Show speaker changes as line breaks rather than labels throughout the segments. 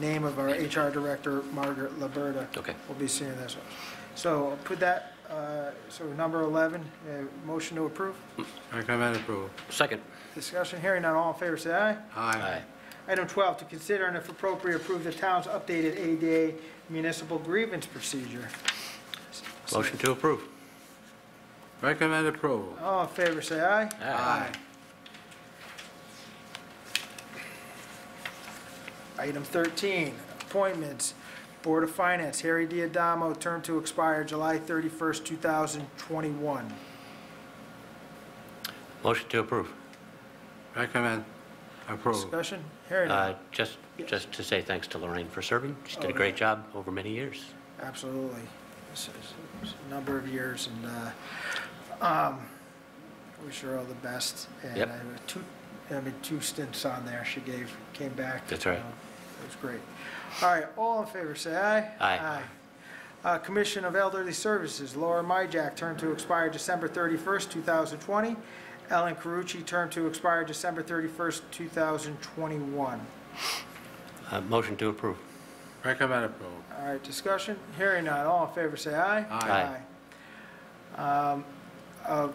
name of our HR director, Margaret Liberta.
Okay.
Will be seeing this one. So put that, uh, so number 11, uh, motion to approve.
Recommend approval.
Second.
Discussion, hearing none, all in favor, say aye.
Aye.
Item 12, to consider and if appropriate, approve the town's updated ADA municipal grievance procedure.
Motion to approve.
Recommend approval.
All in favor, say aye.
Aye.
Item 13, appointments. Board of Finance, Harry Diadamo, term to expire July 31st, 2021.
Motion to approve.
Recommend approval.
Discussion, hearing none.
Uh, Just, just to say thanks to Lorraine for serving. She did a great job over many years.
Absolutely. This is- this is a number of years, and uh, um, wish her all the best.
Yep.
And I- two, I mean, two stints on there she gave, came back.
That's
you
right.
know, It was great. All right, all in favor, say aye.
Aye.
Uh, Commission of Elderly Services, Laura Myjack, term to expire December 31st, 2020. Ellen Carucci, term to expire December 31st, 2021.
Uh, Motion to approve.
Recommend approval.
All right, discussion, hearing none, all in favor, say aye.
Aye.
Aye. Um, uh,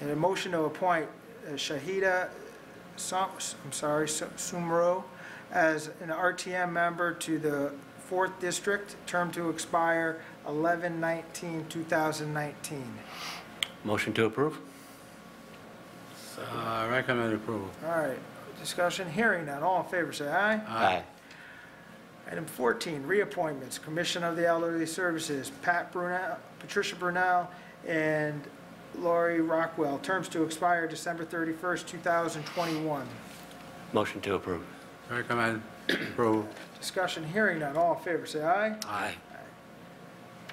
and A motion to appoint uh, Shahida, Som- I'm sorry, Su- Sumro as an RTM member to the 4th District, term to expire 11/19/2019.
Motion to approve.
Uh, Recommend approval.
All right, discussion, hearing none, all in favor, say aye. Item 14, reappointments, Commission of the Elderly Services, Pat Brunel, Patricia Brunel, and Lori Rockwell, terms to expire December 31st, 2021.
Motion to approve.
Recommend approval.
Discussion hearing none, all in favor, say aye.
Aye.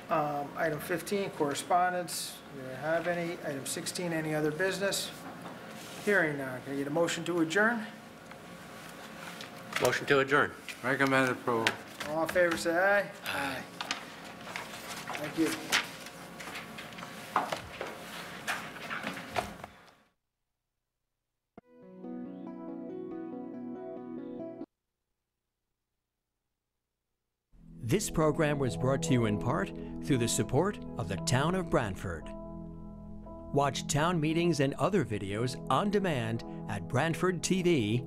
Um, Item 15, correspondence, do we have any? Item 16, any other business? Hearing none, can I get a motion to adjourn?
Motion to adjourn.
Recommend approval.
All in favor, say aye. Aye. Thank you.
This program was brought to you in part through the support of the Town of Brantford. Watch town meetings and other videos on demand at BrantfordTV.org.